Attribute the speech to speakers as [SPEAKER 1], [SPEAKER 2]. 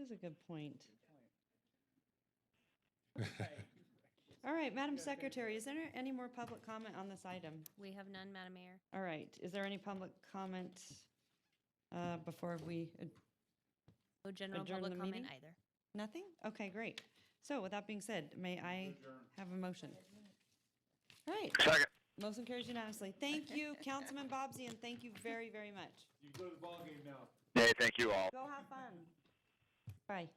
[SPEAKER 1] is a good point. All right, Madam Secretary, is there any more public comment on this item?
[SPEAKER 2] We have none, Madam Mayor.
[SPEAKER 1] All right, is there any public comment uh, before we,
[SPEAKER 2] No general
[SPEAKER 1] Adjourn
[SPEAKER 2] public
[SPEAKER 1] the
[SPEAKER 2] comment
[SPEAKER 1] meeting?
[SPEAKER 2] either.
[SPEAKER 1] nothing? Okay, great. So with that being said, may I have a motion? All right,
[SPEAKER 3] Second.
[SPEAKER 1] motion carries unanimously. Thank you, Councilman Bobsey, and thank you very, very much.
[SPEAKER 4] You can go to the ballgame now.
[SPEAKER 3] Hey, thank you all.
[SPEAKER 1] Go have fun. Bye.